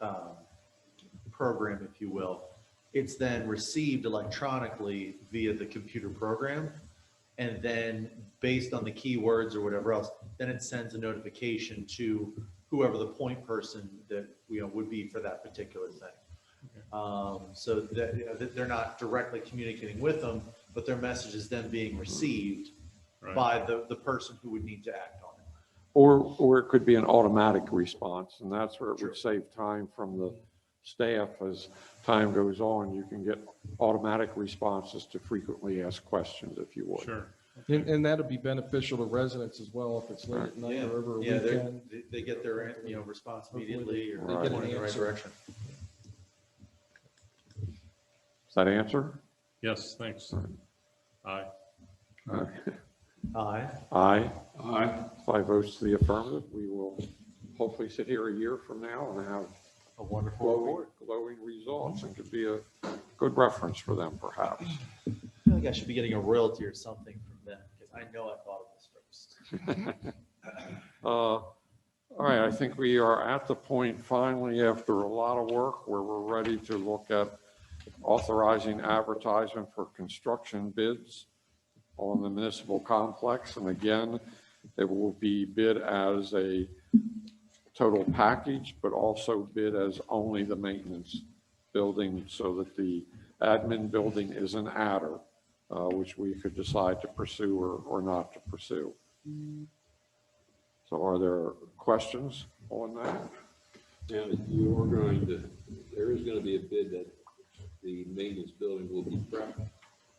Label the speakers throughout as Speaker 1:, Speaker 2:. Speaker 1: uh, program, if you will. It's then received electronically via the computer program. And then based on the keywords or whatever else, then it sends a notification to whoever the point person that, you know, would be for that particular thing. Um, so that, you know, that they're not directly communicating with them, but their message is then being received
Speaker 2: Right.
Speaker 1: by the, the person who would need to act on it.
Speaker 3: Or, or it could be an automatic response, and that's where it
Speaker 1: Sure.
Speaker 3: would save time from the staff. As time goes on, you can get automatic responses to frequently asked questions, if you would.
Speaker 2: Sure.
Speaker 4: And, and that'd be beneficial to residents as well if it's late at night or over a
Speaker 1: Oh, Yeah, they're-
Speaker 4: weekend.
Speaker 1: they- they get their, you know, response
Speaker 4: Hopefully
Speaker 1: immediately or
Speaker 3: they get
Speaker 1: point
Speaker 4: an
Speaker 1: in the right
Speaker 4: answer.
Speaker 1: direction.
Speaker 3: Does that answer?
Speaker 2: Yes, thanks. Aye.
Speaker 1: Aye.
Speaker 3: Aye.
Speaker 2: Aye.
Speaker 3: Five votes to the affirmative. We will hopefully sit here a year from now and have
Speaker 1: A wonderful
Speaker 3: glowing,
Speaker 1: report.
Speaker 3: glowing results and could be a good reference for them perhaps.
Speaker 1: I feel like I should be getting a royalty or something from them because I know I thought of this first.
Speaker 3: Uh, All right, I think we are at the point finally, after a lot of work, where we're ready to look at authorizing advertisement for construction bids on the municipal complex. And again, it will be bid as a total package, but also bid as only the maintenance building so that the admin building is an adder, uh, which we could decide to pursue or, or not to pursue. So are there questions on that?
Speaker 5: Now, you are going to, there is gonna be a bid that the maintenance building will be prepped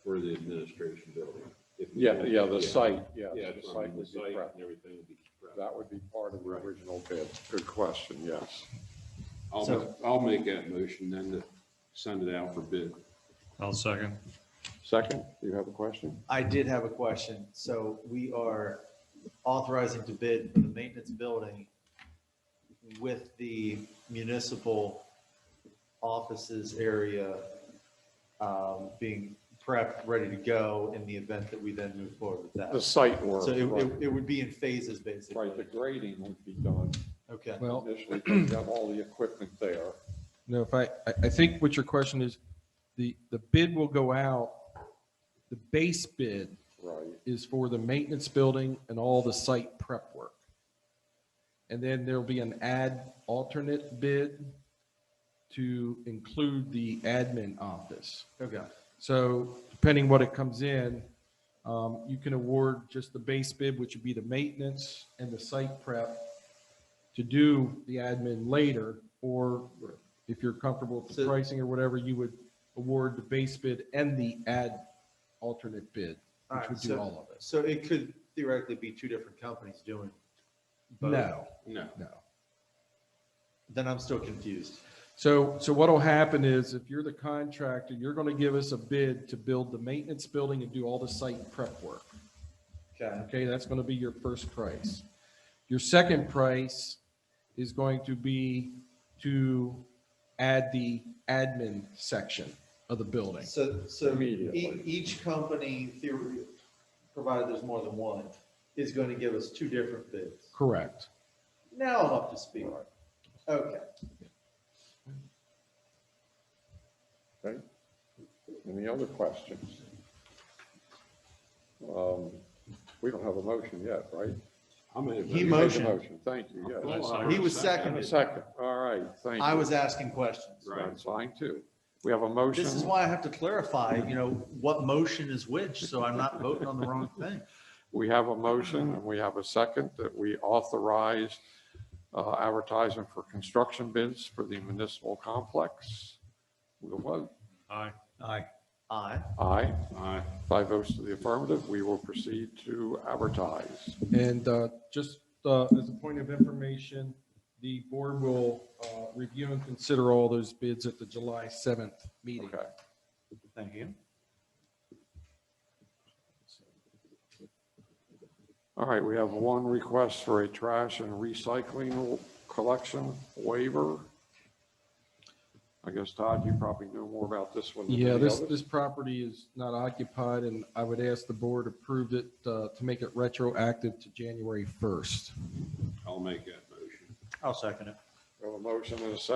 Speaker 5: for the administration building. if we
Speaker 3: Yeah,
Speaker 5: don't-
Speaker 3: yeah, the site, yeah.
Speaker 5: Yeah,
Speaker 3: the
Speaker 5: that's
Speaker 3: site
Speaker 5: right, the
Speaker 3: would be
Speaker 5: site
Speaker 3: prepped.
Speaker 5: and everything will be prepped.
Speaker 3: That would be part of the original bid. Good question, yes.
Speaker 5: I'll,
Speaker 1: So-
Speaker 5: ma- I'll make that motion then to send it out for bid.
Speaker 2: I'll second.
Speaker 3: Second, do you have a question?
Speaker 1: I did have a question. So we are authorizing to bid for the maintenance building with the municipal offices area um, being prepped, ready to go in the event that we then move forward with
Speaker 3: The
Speaker 1: that.
Speaker 3: site work,
Speaker 1: So it, it,
Speaker 3: right.
Speaker 1: it would be in phases, basically.
Speaker 3: right, the grading would be done
Speaker 1: Okay.
Speaker 4: Well,
Speaker 3: initially, 'cause you have all the equipment there.
Speaker 4: no, if I, I, I think what your question is, the, the bid will go out, the base bid
Speaker 3: Right,
Speaker 4: is for the maintenance building and all the site prep work. And then there'll be an ad alternate bid to include the admin office.
Speaker 1: Okay.
Speaker 4: So depending what it comes in, um, you can award just the base bid, which would be the maintenance and the site prep to do the admin later, or if you're comfortable with the
Speaker 1: So-
Speaker 4: pricing or whatever, you would award the base bid and the ad alternate bid,
Speaker 1: All
Speaker 4: which
Speaker 1: right.
Speaker 4: would do
Speaker 1: So,
Speaker 4: all of it.
Speaker 1: so it could theoretically be two different companies doing. both.
Speaker 4: No,
Speaker 5: No,
Speaker 4: no.
Speaker 1: Then I'm still confused.
Speaker 4: So, so what'll happen is if you're the contractor, you're gonna give us a bid to build the maintenance building and do all the site prep work.
Speaker 1: Okay.
Speaker 4: Okay, that's going to be your first price. Your second price is going to be to add the admin section of the building.
Speaker 1: So, so e-
Speaker 3: Immediately.
Speaker 1: each company, theory- provided there's more than one, is going to give us two different bids.
Speaker 4: Correct.
Speaker 1: Now I'm up to speed. Okay.
Speaker 3: okay? Any other questions? Um, We don't have a motion yet, right?
Speaker 5: I made a
Speaker 1: He
Speaker 3: You
Speaker 5: motion.
Speaker 3: made the
Speaker 1: motioned.
Speaker 3: Motion, thank you, yes.
Speaker 5: Well, I
Speaker 1: He was
Speaker 3: And a
Speaker 1: seconded.
Speaker 3: second, all right, thank you.
Speaker 1: I was asking questions.
Speaker 5: Right.
Speaker 3: That's fine too. We have a motion.
Speaker 1: This is why I have to clarify, you know, what motion is which, so I'm not voting on the wrong thing.
Speaker 3: We have a motion and we have a second that we authorize uh, advertising for construction bids for the municipal complex. We'll vote.
Speaker 2: Aye.
Speaker 1: Aye. Aye.
Speaker 3: Aye,
Speaker 5: Aye.
Speaker 3: five votes to the affirmative. We will proceed to advertise.
Speaker 4: And uh, just uh, as a point of information, the board will uh, review and consider all those bids at the July 7th meeting.
Speaker 3: Okay.
Speaker 1: Thank you.
Speaker 3: All right, we have one request for a trash and recycling collection waiver. I guess Todd, you probably know more about this one than any
Speaker 4: Yeah, this,
Speaker 3: others.
Speaker 4: this property is not occupied, and I would ask the board approve it uh, to make it retroactive to January 1st.
Speaker 5: I'll make that motion.
Speaker 1: I'll second it.
Speaker 3: We have a motion and a second